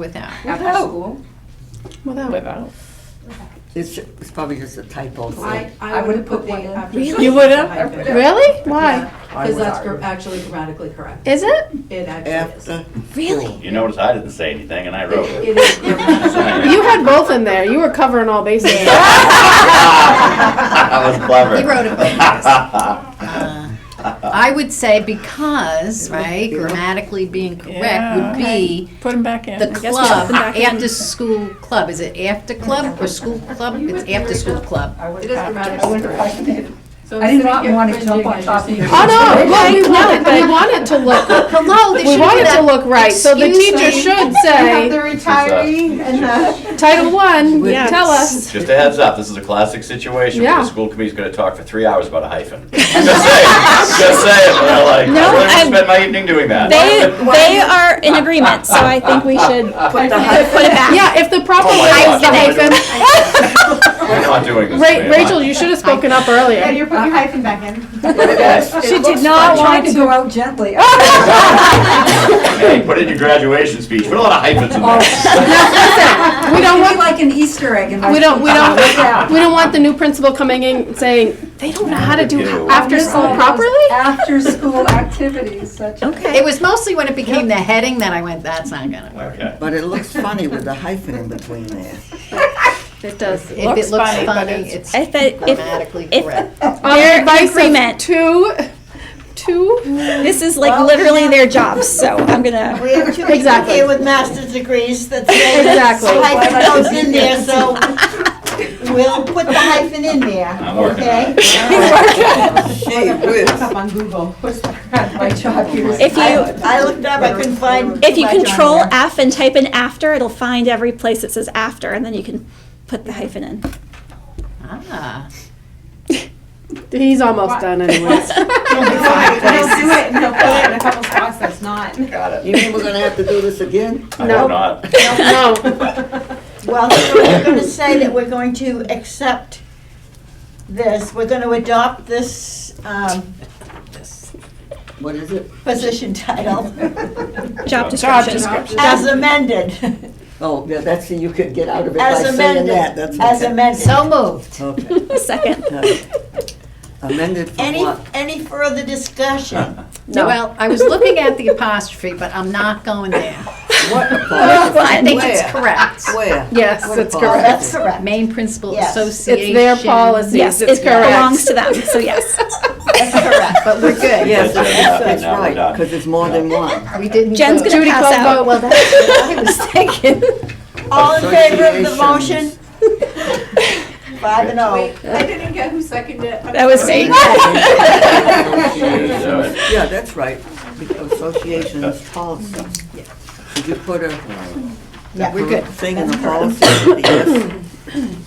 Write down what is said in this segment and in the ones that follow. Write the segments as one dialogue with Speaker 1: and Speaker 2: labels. Speaker 1: Without, after
Speaker 2: Without.
Speaker 1: school?
Speaker 3: Without.
Speaker 2: It's, it's probably just a typo.
Speaker 4: I,
Speaker 1: I
Speaker 4: I would have
Speaker 1: would've put
Speaker 4: put the
Speaker 1: one in.
Speaker 4: after.
Speaker 3: Really? You would've? Really? Why?
Speaker 4: Because that's gr- actually grammatically correct.
Speaker 3: Is it?
Speaker 4: It actually is.
Speaker 2: After.
Speaker 3: Really?
Speaker 5: You notice I didn't say anything and I wrote it.
Speaker 4: It is grammatically.
Speaker 3: You had both in there. You were covering all bases.
Speaker 5: I was clever.
Speaker 1: He wrote a book,
Speaker 3: uh,
Speaker 1: Uh, I would say because, right, grammatically being correct would be
Speaker 6: Put them back in.
Speaker 1: the
Speaker 6: I guess we put
Speaker 1: club,
Speaker 6: 'em back in.
Speaker 1: after school club. Is it after club or school club? It's after school club.
Speaker 4: It is grammatically correct. So
Speaker 7: I did
Speaker 4: instead of
Speaker 7: not
Speaker 4: you
Speaker 7: want to jump on
Speaker 4: cringing
Speaker 7: top of
Speaker 4: at
Speaker 7: you.
Speaker 4: yourself-
Speaker 3: Oh, no, well, we want it, we want it to look,
Speaker 1: Hello, they
Speaker 3: we
Speaker 1: should
Speaker 3: want
Speaker 1: do
Speaker 3: it to
Speaker 1: that.
Speaker 3: look right, so the
Speaker 1: Excuse me.
Speaker 3: teacher should
Speaker 7: You have the
Speaker 3: say,
Speaker 7: retiree and the.
Speaker 3: Title One,
Speaker 2: Yes.
Speaker 3: tell us.
Speaker 5: Just a heads up, this is a classic situation where
Speaker 3: Yeah.
Speaker 5: the school committee's gonna talk for three hours about a hyphen. Just saying, just saying, and I'm like,
Speaker 8: No,
Speaker 5: I would
Speaker 8: I'm-
Speaker 5: have spent my evening doing that.
Speaker 8: They, they are in agreement, so I think we should put it back.
Speaker 3: Yeah, if the proper
Speaker 5: Oh my
Speaker 3: way is the
Speaker 5: God, I'm gonna do
Speaker 3: hyphen.
Speaker 5: We're not doing this.
Speaker 3: Ra-
Speaker 5: man.
Speaker 3: Rachel, you should have spoken up
Speaker 7: Yeah,
Speaker 3: earlier.
Speaker 7: you're putting your hyphen back in.
Speaker 5: Yes.
Speaker 8: She did not
Speaker 7: Trying
Speaker 8: want
Speaker 7: to
Speaker 8: to.
Speaker 7: go out gently.
Speaker 5: Hey, put it in your graduation speech, put a lot of hyphens
Speaker 3: Oh,
Speaker 5: in there.
Speaker 3: We don't want,
Speaker 7: like an Easter egg in my.
Speaker 3: we don't, we don't,
Speaker 7: Yeah.
Speaker 3: we don't want the new principal coming in saying, they don't know how to do
Speaker 5: Ew.
Speaker 3: after school properly?
Speaker 7: After-school activities such.
Speaker 1: It was mostly when it became the heading that I went, that's not gonna work.
Speaker 5: Okay.
Speaker 2: But it looks funny with the hyphen in between there.
Speaker 1: It does, if
Speaker 6: Looks
Speaker 1: it looks
Speaker 6: funny, but
Speaker 1: funny,
Speaker 6: it's-
Speaker 1: it's
Speaker 8: If, it- if
Speaker 1: grammatically
Speaker 8: if-
Speaker 1: correct.
Speaker 3: On the
Speaker 8: They're
Speaker 3: advice of
Speaker 8: agreement.
Speaker 3: Um, two, two,
Speaker 8: this is like literally their job, so I'm gonna.
Speaker 9: We have two people
Speaker 3: Exactly.
Speaker 9: here with master's degrees that say
Speaker 3: Exactly.
Speaker 9: the hyphen goes in there, so we'll put the hyphen in there,
Speaker 5: I'm working on
Speaker 9: okay?
Speaker 2: Gee
Speaker 4: Look
Speaker 2: whiz.
Speaker 4: up on Google.
Speaker 7: My job here is.
Speaker 8: If
Speaker 9: I
Speaker 8: you
Speaker 9: I looked up, I couldn't find.
Speaker 8: if you
Speaker 9: too much on
Speaker 8: control
Speaker 9: there.
Speaker 8: F and type in after, it'll find every place that says after, and then you can put the hyphen in.
Speaker 1: Ah,
Speaker 3: he's almost done anyways.
Speaker 4: They'll do it and they'll put it in a couple spots that's not.
Speaker 5: Got
Speaker 2: You
Speaker 5: it.
Speaker 2: mean we're gonna have to do this again?
Speaker 5: I
Speaker 3: No.
Speaker 5: hope not.
Speaker 3: No.
Speaker 9: Well, so we're gonna say that we're going to accept this, we're gonna adopt this, um,
Speaker 2: What is it?
Speaker 9: position title
Speaker 8: Job
Speaker 5: Job
Speaker 8: description.
Speaker 9: as amended,
Speaker 2: Oh, yeah, that's, you could get out of it by
Speaker 9: as
Speaker 2: saying
Speaker 9: amended,
Speaker 2: that, that's
Speaker 9: as
Speaker 2: okay.
Speaker 9: amended.
Speaker 1: So moved.
Speaker 2: Okay,
Speaker 8: Second.
Speaker 2: all right. Amended for
Speaker 9: Any,
Speaker 2: what?
Speaker 9: any further discussion?
Speaker 3: No.
Speaker 1: Well, I was looking at the apostrophe, but I'm not going there.
Speaker 2: What apology?
Speaker 1: I think it's correct.
Speaker 2: Where?
Speaker 3: Yes,
Speaker 2: What
Speaker 3: it's
Speaker 2: apology?
Speaker 9: Oh, that's correct.
Speaker 1: Main Principal
Speaker 9: Yes. It's
Speaker 1: Association.
Speaker 3: It's their policies,
Speaker 8: Yes,
Speaker 3: it's
Speaker 8: it belongs
Speaker 3: correct.
Speaker 8: to them, so yes.
Speaker 9: That's correct.
Speaker 1: But we're good.
Speaker 2: Yes,
Speaker 5: That's it,
Speaker 2: that's
Speaker 5: nothing,
Speaker 2: that's
Speaker 5: now we're
Speaker 2: right,
Speaker 5: done.
Speaker 2: because it's more than one.
Speaker 1: We didn't.
Speaker 8: Jen's gonna
Speaker 3: Judy
Speaker 8: pass
Speaker 3: Cloud vote, well,
Speaker 8: out.
Speaker 3: that's what I was thinking.
Speaker 9: All in favor of the motion? Five and oh.
Speaker 4: Wait, I didn't get who seconded it.
Speaker 8: That was me.
Speaker 2: Associations. Yeah, that's right, associations policy. Did you put a
Speaker 9: Yeah,
Speaker 1: We're good.
Speaker 2: thing in the policy? Yes.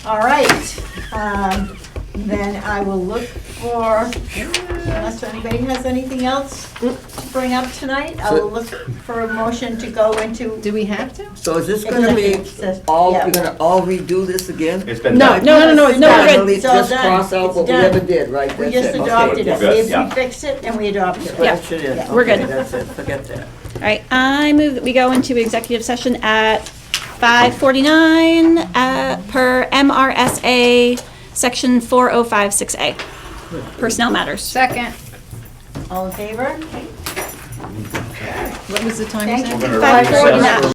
Speaker 9: All right. Um, Then I will look for, unless anybody has anything else to bring up tonight, I will look for a motion to go into.
Speaker 1: Do we have to?
Speaker 2: So is this gonna be
Speaker 9: executive session.
Speaker 2: all,
Speaker 9: Yeah.
Speaker 2: we're gonna all redo this again?
Speaker 5: It's been
Speaker 3: No,
Speaker 5: done.
Speaker 3: no, no, no, it's
Speaker 9: No,
Speaker 3: not.
Speaker 9: we're
Speaker 2: Finally,
Speaker 9: It's all
Speaker 2: Just
Speaker 9: done.
Speaker 2: cross out
Speaker 9: It's
Speaker 2: what we
Speaker 9: done.
Speaker 2: ever did, right?
Speaker 9: We
Speaker 2: That's
Speaker 9: just
Speaker 2: it.
Speaker 9: adopted it.
Speaker 5: good,
Speaker 9: We- We
Speaker 5: yeah.
Speaker 9: fixed it and we adopted it.
Speaker 2: Scratch it in.
Speaker 8: We're
Speaker 2: Okay,
Speaker 8: good.
Speaker 2: That's it, forget that.
Speaker 8: All right, I move that we go into executive session at 5:49 uh, per MRSA, Section 4056A, Personnel Matters.
Speaker 1: Second.
Speaker 9: All in favor?
Speaker 1: What was the time?
Speaker 9: Thank
Speaker 1: set?
Speaker 9: you.
Speaker 5: We're gonna
Speaker 8: Five
Speaker 5: recess
Speaker 8: forty-nine.
Speaker 5: for